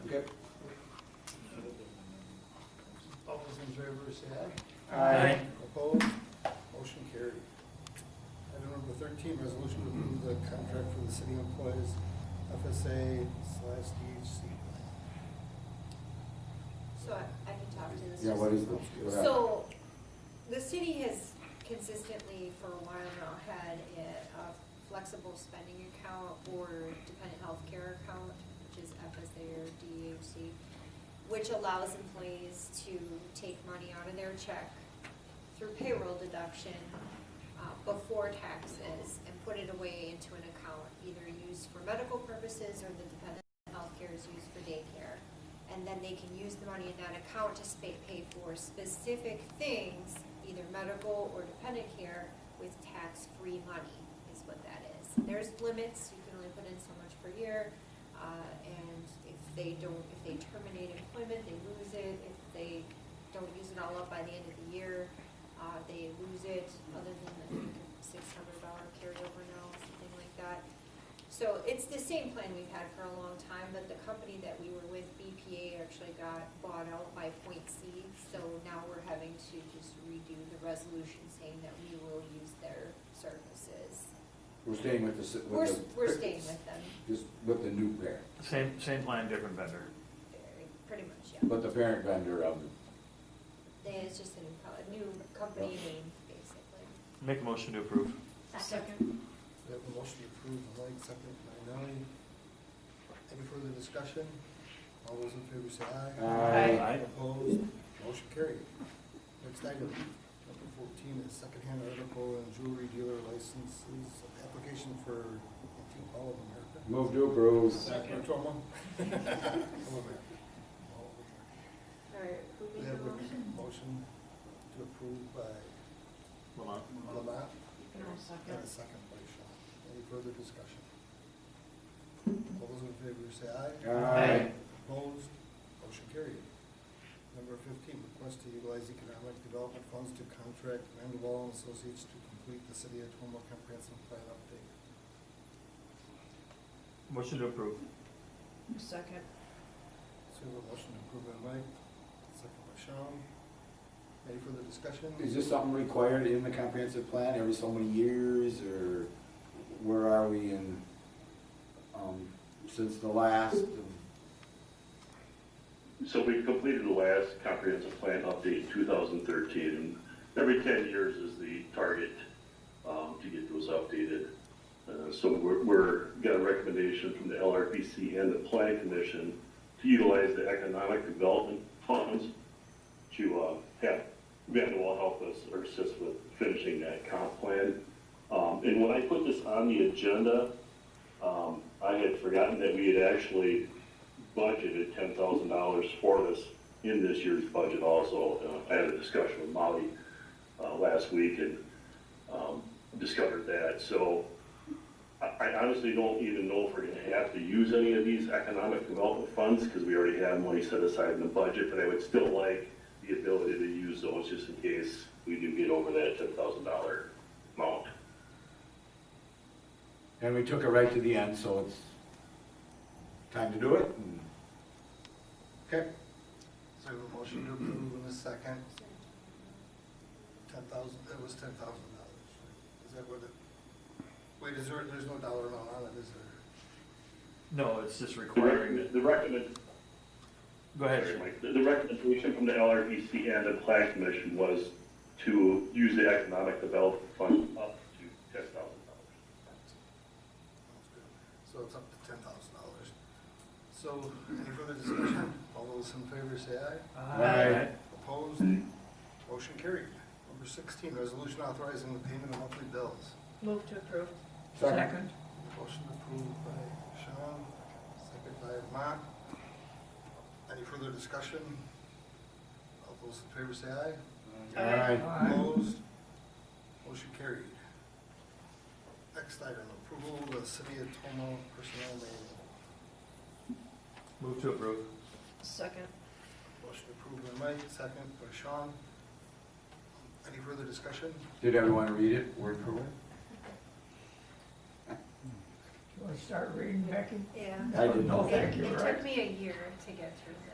favor, say aye. Aye. Opposed? Motion carried. Item number thirteen, resolution to approve the contract for the city employees FSA slash DHC. So I, I can talk to this. Yeah, what is the, what happened? So, the city has consistently for a while now had a a flexible spending account or dependent health care account, which is FSA or DHC, which allows employees to take money out of their check through payroll deduction uh, before taxes and put it away into an account, either used for medical purposes or the dependent healthcare is used for daycare. And then they can use the money in that account to spa- pay for specific things, either medical or dependent care, with tax-free money, is what that is. There's limits, you can only put in so much per year, uh, and if they don't, if they terminate employment, they lose it. If they don't use it all up by the end of the year, uh, they lose it, other than the six hundred dollar carryover now, something like that. So it's the same plan we've had for a long time, but the company that we were with, BPA, actually got bought out by Point C. So now we're having to just redo the resolution saying that we will use their services. We're staying with the, si- We're, with the. we're staying with them, Just with the new parent, Same, same plan, different vendor. very- pretty much, yeah. but the parent vendor of, They, it's just a new, co- a new company name, basically. Make a motion to approve. Second. We have a motion to approve by Mike, second by Nellie. Any further discussion? All those in favor say aye. Aye. Aye. Opposed? Motion carried. Next item, number fourteen is secondhand article and jewelry dealer licenses, application for, I think, all of America. move to Or approve. to all of America. All of America. All right, who We made have the a motion? motion to approve by Lamont? Lamont, And and I'll a second. second by Shaw. Any further discussion? All those in favor say aye. Aye. Opposed, motion carried. Number fifteen, request to utilize economic development funds to contract Mandeville and Associates to complete the city of Toma comprehensive plan update. Motion to approve. Second. So we have a motion to approve by Mike, second by Sean. Any further discussion? Is this something required in the comprehensive plan every so many years, or where are we in, um, since the last? So we completed the last comprehensive plan update in 2013, and every 10 years is the target um, to get those updated. Uh, So we're, we're, got a recommendation from the LRPC and the planning commission to utilize the economic development funds to uh, have Vanderwall help us or assist with finishing that comp plan. Um, And when I put this on the agenda, um, I had forgotten that we had actually budgeted ten thousand dollars for this in this year's budget also. Uh, I had a discussion with Molly, uh, last week and, um, discovered that, so I, I honestly don't even know if we're gonna have to use any of these economic development funds, cause we already have money set aside in the budget, but I would still like the ability to use those just in case we do get over that ten thousand dollar amount. And we took it right to the end, so it's time to do it, and Okay. So we have a motion to approve in a second, ten thousand, it was ten thousand dollars. Is that what it, wait, is there, there's no dollar amount on it, is there? No, it's just The requiring recommend, that. the recommend, Go ahead. The the recommendation from the LRDC and the Plan Commission was to use the economic development fund up to ten thousand dollars. So it's up to ten thousand dollars. So any further discussion? All those in favor say aye. Aye. Opposed? Motion carried. Number sixteen, resolution authorizing the payment of monthly bills. Move to approve. Second. Motion approved by Sean, second by Mark. Any further discussion? All those in favor say aye. Aye. Opposed? Motion carried. Next item, approval of the city of Tomo personnel manual. Move to approve. Second. Motion approved by Mike, second by Sean. Any further discussion? Did everyone read it word for word? You want to start reading, Becky? Yeah. I did No, not. thank It Oh, you, it right? took me a year to get through